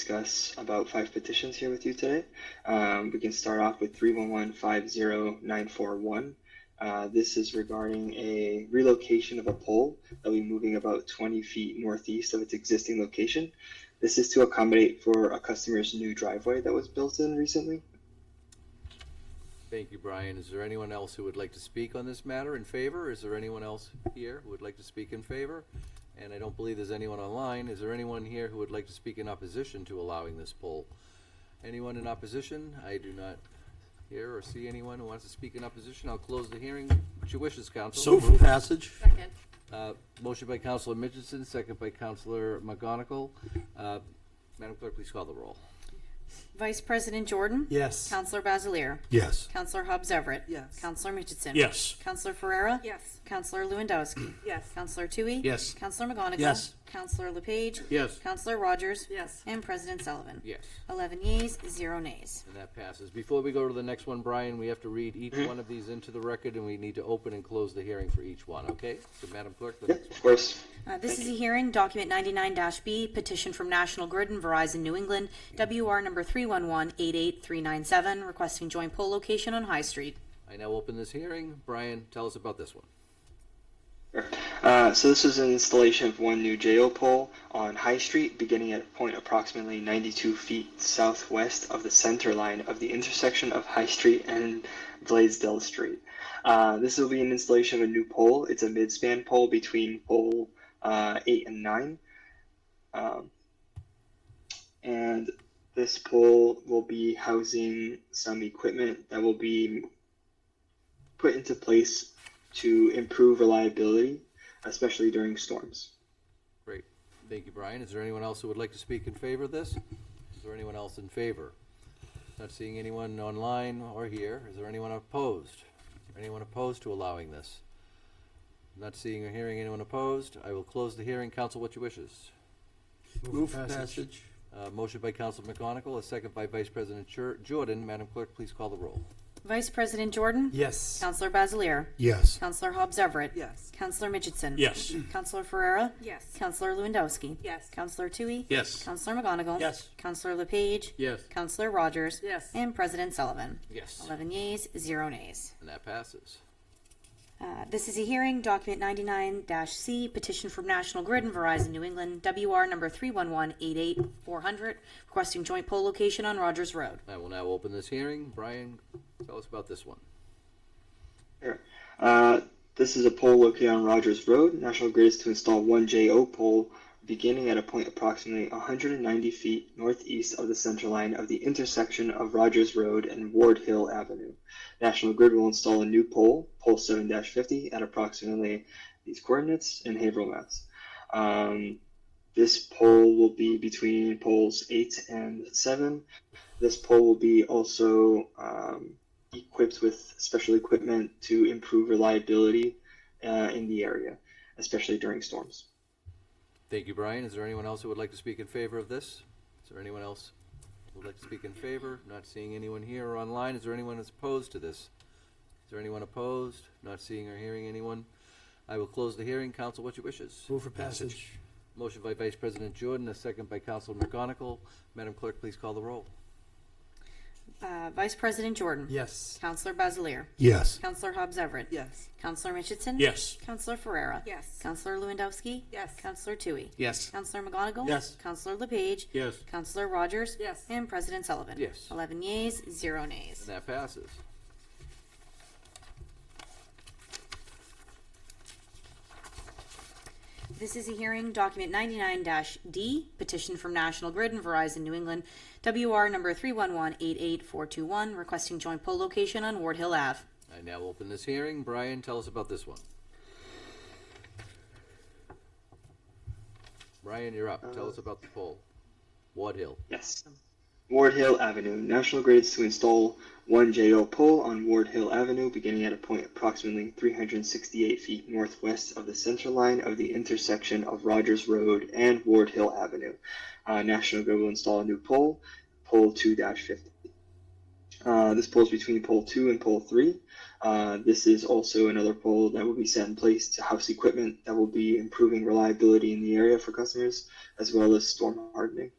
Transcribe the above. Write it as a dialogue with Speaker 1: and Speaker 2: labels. Speaker 1: discuss about five petitions here with you today. Um, we can start off with 311-50941. Uh, this is regarding a relocation of a pole that will be moving about 20 feet northeast of its existing location. This is to accommodate for a customer's new driveway that was built in recently.
Speaker 2: Thank you, Brian. Is there anyone else who would like to speak on this matter in favor? Is there anyone else here who would like to speak in favor? And I don't believe there's anyone online. Is there anyone here who would like to speak in opposition to allowing this poll? Anyone in opposition? I do not hear or see anyone who wants to speak in opposition. I'll close the hearing. What's your wishes, council?
Speaker 3: So for passage?
Speaker 4: Second.
Speaker 2: Uh, Motion by Counselor Mitchinson, second by Counselor McGonigal. Uh, Madam Clerk, please call the roll.
Speaker 4: Vice President Jordan?
Speaker 3: Yes.
Speaker 4: Counselor Basileir?
Speaker 3: Yes.
Speaker 4: Counselor Hobbs Everett?
Speaker 5: Yes.
Speaker 4: Counselor Mitchinson?
Speaker 3: Yes.
Speaker 4: Counselor Ferrera?
Speaker 5: Yes.
Speaker 4: Counselor Lewandowski?
Speaker 5: Yes.
Speaker 4: Counselor Tui?
Speaker 3: Yes.
Speaker 4: Counselor McGonigal?
Speaker 3: Yes.
Speaker 4: Counselor LePage?
Speaker 3: Yes.
Speaker 4: Counselor Rogers?
Speaker 5: Yes.
Speaker 4: And President Sullivan?
Speaker 2: Yes.
Speaker 4: Eleven yeas, zero nays.
Speaker 2: And that passes. Before we go to the next one, Brian, we have to read each one of these into the record, and we need to open and close the hearing for each one, okay? So Madam Clerk, the
Speaker 1: Yep,
Speaker 2: next
Speaker 1: of course.
Speaker 4: Uh, This is a hearing, document 99-B, petition from National Grid and Verizon New England, WR number 311-88397, requesting joint pole location on High Street.
Speaker 2: I now open this hearing. Brian, tell us about this one.
Speaker 1: Uh, so this is an installation of one new JO pole on High Street, beginning at a point approximately 92 feet southwest of the center line of the intersection of High Street and Blaisdell Street. Uh, this will be an installation of a new pole. It's a midspan pole between pole uh, 8 and 9. Um, and this pole will be housing some equipment that will be put into place to improve reliability, especially during storms.
Speaker 2: Great. Thank you, Brian. Is there anyone else who would like to speak in favor of this? Is there anyone else in favor? Not seeing anyone online or here. Is there anyone opposed? Anyone opposed to allowing this? Not seeing or hearing anyone opposed. I will close the hearing. Council, what your wishes?
Speaker 3: Move for passage?
Speaker 2: Uh, motion by Council McGonigal, a second by Vice President Jor- Jordan. Madam Clerk, please call the roll.
Speaker 4: Vice President Jordan?
Speaker 3: Yes.
Speaker 4: Counselor Basileir?
Speaker 3: Yes.
Speaker 4: Counselor Hobbs Everett?
Speaker 5: Yes.
Speaker 4: Counselor Mitchinson?
Speaker 3: Yes.
Speaker 4: Counselor Ferrera?
Speaker 5: Yes.
Speaker 4: Counselor Lewandowski?
Speaker 5: Yes.
Speaker 4: Counselor Tui?
Speaker 3: Yes.
Speaker 4: Counselor McGonigal?
Speaker 3: Yes.
Speaker 4: Counselor LePage?
Speaker 2: Yes.
Speaker 4: Counselor Rogers?
Speaker 5: Yes.
Speaker 4: And President Sullivan?
Speaker 2: Yes.
Speaker 4: Eleven yeas, zero nays.
Speaker 2: And that passes.
Speaker 4: Uh, This is a hearing, document 99-C, petition from National Grid and Verizon New England, WR number 311-88400, requesting joint pole location on Rogers Road.
Speaker 2: I will now open this hearing. Brian, tell us about this one.
Speaker 1: Here. Uh, this is a pole located on Rogers Road. National Grid is to install one JO pole beginning at a point approximately 190 feet northeast of the center line of the intersection of Rogers Road and Ward Hill Avenue. National Grid will install a new pole, pole 7-50, at approximately these coordinates in Haverhill, Mass. Um, this pole will be between poles 8 and 7. This pole will be also um, equipped with special equipment to improve reliability uh, in the area, especially during storms.
Speaker 2: Thank you, Brian. Is there anyone else who would like to speak in favor of this? Is there anyone else who would like to speak in favor? Not seeing anyone here or online. Is there anyone that's opposed to this? Is there anyone opposed? Not seeing or hearing anyone. I will close the hearing. Council, what your wishes?
Speaker 3: Move for passage?
Speaker 2: Motion by Vice President Jordan, a second by Council McGonigal. Madam Clerk, please call the roll.
Speaker 4: Uh, Vice President Jordan?
Speaker 3: Yes.
Speaker 4: Counselor Basileir?
Speaker 3: Yes.
Speaker 4: Counselor Hobbs Everett?
Speaker 5: Yes.
Speaker 4: Counselor Mitchinson?
Speaker 3: Yes.
Speaker 4: Counselor Ferrera?
Speaker 5: Yes.
Speaker 4: Counselor Lewandowski?
Speaker 5: Yes.
Speaker 4: Counselor Tui?
Speaker 3: Yes.
Speaker 4: Counselor McGonigal?
Speaker 3: Yes.
Speaker 4: Counselor LePage?
Speaker 3: Yes.
Speaker 4: Counselor Rogers?
Speaker 5: Yes.
Speaker 4: And President Sullivan?
Speaker 2: Yes.
Speaker 4: Eleven yeas, zero nays.
Speaker 2: And that passes.
Speaker 4: This is a hearing, document 99-D, petition from National Grid and Verizon New England, WR number 311-88421, requesting joint pole location on Ward Hill Ave.
Speaker 2: I now open this hearing. Brian, tell us about this one. Brian, you're up. Tell us about the poll. Ward Hill.
Speaker 1: Yes. Ward Hill Avenue. National Grid is to install one JO pole on Ward Hill Avenue beginning at a point approximately 368 feet northwest of the center line of the intersection of Rogers Road and Ward Hill Avenue. Uh, National Grid will install a new pole, pole 2 50. Uh, this pole is between pole 2 and pole 3. Uh, this is also another pole that will be set in place to house equipment that will be improving reliability in the area for customers as well as storm hardening.